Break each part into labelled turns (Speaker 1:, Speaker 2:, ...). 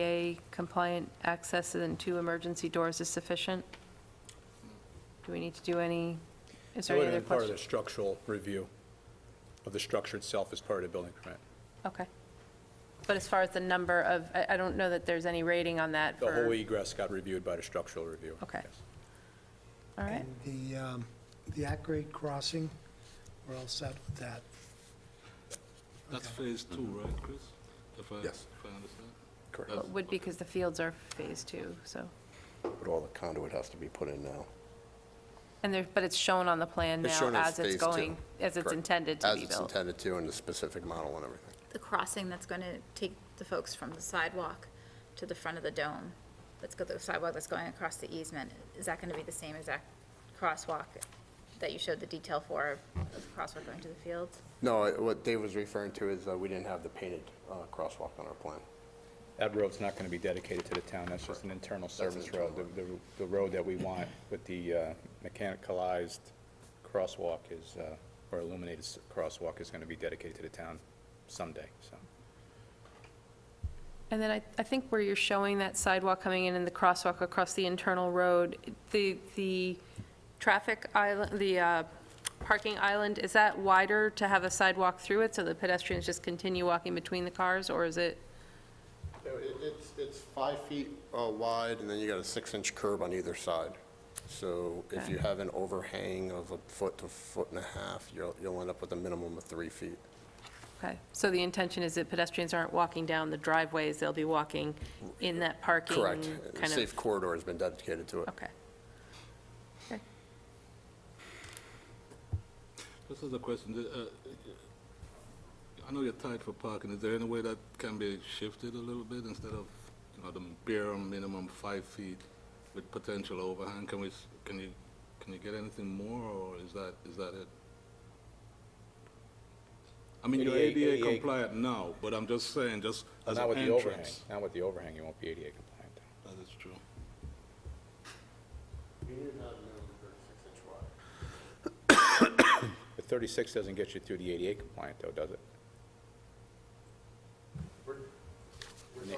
Speaker 1: ADA compliant access and two emergency doors is sufficient? Do we need to do any, is
Speaker 2: That
Speaker 1: there
Speaker 2: would
Speaker 1: any
Speaker 2: have
Speaker 1: other
Speaker 2: been part of the
Speaker 1: questions?
Speaker 2: structural review of the structure itself as part of the building permit.
Speaker 1: Okay. But as far as the number of, I, I don't know that there's any rating on that
Speaker 2: The
Speaker 1: for,
Speaker 2: whole
Speaker 1: all
Speaker 2: egress got reviewed by the structural review.
Speaker 1: Okay.
Speaker 2: yes.
Speaker 1: right,
Speaker 3: And The, um, the at-grade crossing, we're all set with that.
Speaker 4: That's phase two, right, Chris? If I,
Speaker 5: Mm-hmm. Yes.
Speaker 4: if I understand?
Speaker 5: Correct.
Speaker 4: That's-
Speaker 1: would be because the fields are phase two, so,
Speaker 5: But all the conduit has to be put in now.
Speaker 1: and there, but it's shown on the plan
Speaker 5: It's
Speaker 1: now
Speaker 5: shown
Speaker 1: as
Speaker 5: as
Speaker 1: it's
Speaker 5: phase two,
Speaker 1: going, as it's
Speaker 5: correct.
Speaker 1: intended to be
Speaker 5: As it's
Speaker 1: built.
Speaker 5: intended to, and the specific model and everything.
Speaker 6: the crossing that's going to take the folks from the sidewalk to the front of the dome, that's got the sidewalk that's going across the easement, is that going to be the same exact crosswalk that you showed the detail for, of the crosswalk going to the fields?
Speaker 5: No, it- what Dave was referring to is uh, we didn't have the painted uh, crosswalk on our plan.
Speaker 2: That road's not going to be dedicated to the town, that's just an internal service road. The- The the road that we want with the uh, mechanicalized crosswalk is, uh, or illuminated s- crosswalk is going to be dedicated to the town someday, so.
Speaker 1: And then I, I think where you're showing that sidewalk coming in and the crosswalk across the internal road, the, the traffic island, the uh, parking island, is that wider to have a sidewalk through it so the pedestrians just continue walking between the cars, or is it?
Speaker 5: No, it- It's, it's five feet uh, wide, and then you got a six-inch curb on either side. So if you have an overhang of a foot to foot and a half, you'll, you'll end up with a minimum of three feet.
Speaker 1: Okay, so the intention is that pedestrians aren't walking down the driveways, they'll be walking in that parking?
Speaker 5: Correct.
Speaker 1: Kind
Speaker 5: Safe
Speaker 1: of,
Speaker 5: corridor has been dedicated to it.
Speaker 1: okay.
Speaker 4: This is the question, the, uh, I know you're tight for parking, is there any way that can be shifted a little bit instead of, you know, the bare minimum five feet with potential overhang? Can we, s- can you, can you get anything more, or is that, is that it? I mean, you're
Speaker 2: ADA
Speaker 4: ADA compliant now, but I'm just saying, just as
Speaker 2: Not
Speaker 4: an
Speaker 2: with the overhang,
Speaker 4: entrance.
Speaker 2: not with the overhang, you won't be ADA compliant.
Speaker 4: That is true.
Speaker 2: The 36 doesn't get you through the ADA compliant, though, does it?
Speaker 4: I'm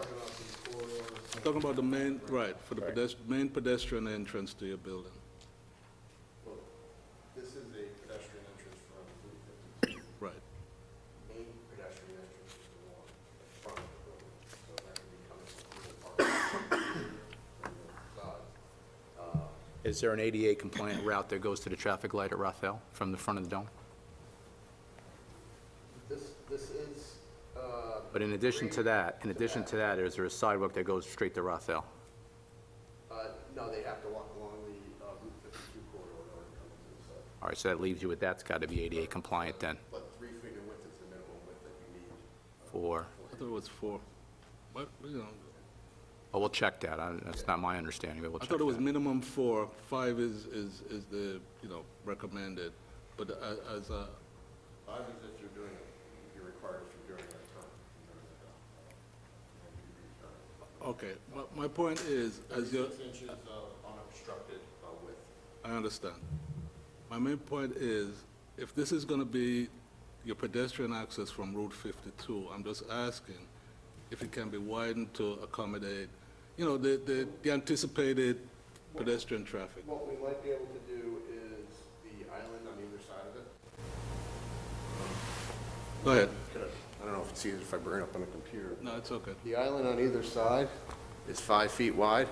Speaker 4: talking about the main, right, for the
Speaker 2: Right.
Speaker 4: pedest- main pedestrian entrance to your building.
Speaker 5: This is a pedestrian entrance from
Speaker 4: Right.
Speaker 5: main pedestrian entrance is the one in front of the building, so that can be coming from the park from the side.
Speaker 2: Is there an ADA compliant route that goes to the traffic light at Rothel from the front of the dome?
Speaker 5: This, this is, uh,
Speaker 2: But in addition to that, in addition to that, is there a sidewalk that goes straight to Rothel?
Speaker 5: uh, no, they have to walk along the uh, Route 52 corridor in order to come to the side.
Speaker 2: All right, so that leaves you with that's got to be ADA compliant then
Speaker 5: But three feet in width is the minimum width that you need.
Speaker 2: for,
Speaker 4: I thought it was four. But, you know,
Speaker 2: oh, we'll check that. I- That's not my understanding, but we'll
Speaker 4: I
Speaker 2: check
Speaker 4: thought it was
Speaker 2: that.
Speaker 4: minimum four, five is, is, is the, you know, recommended. But a- as a,
Speaker 5: Five is if you're doing, it, you're required if you're doing it at current.
Speaker 4: okay, my, my point is, as you're,
Speaker 5: Six inches of unobstructed uh, width.
Speaker 4: I understand. My main point is, if this is gonna be your pedestrian access from Route 52, I'm just asking if it can be widened to accommodate, you know, the, the, the anticipated pedestrian traffic.
Speaker 5: What we might be able to do is the island on either side of it.
Speaker 4: Go ahead.
Speaker 5: I don't know if it's easier if I bring it up on the computer.
Speaker 4: No, it's okay.
Speaker 5: The island on either side is five feet wide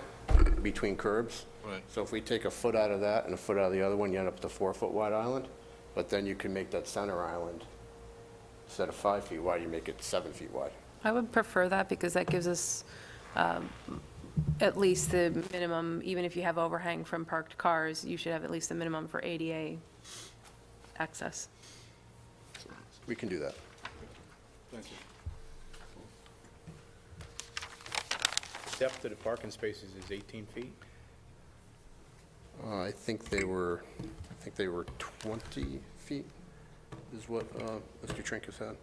Speaker 5: between curbs.
Speaker 4: Right.
Speaker 5: So if we take a foot out of that and a foot out of the other one, you end up with a four-foot wide island. But then you can make that center island, instead of five feet wide, you make it seven feet wide.
Speaker 1: I would prefer that because that gives us um, at least the minimum, even if you have overhang from parked cars, you should have at least the minimum for ADA access.
Speaker 5: We can do that.
Speaker 4: Thank you.
Speaker 2: Depth of the parking spaces is 18 feet?
Speaker 5: Uh, I think they were, I think they were 20 feet is what uh, Mr. Trinkus had.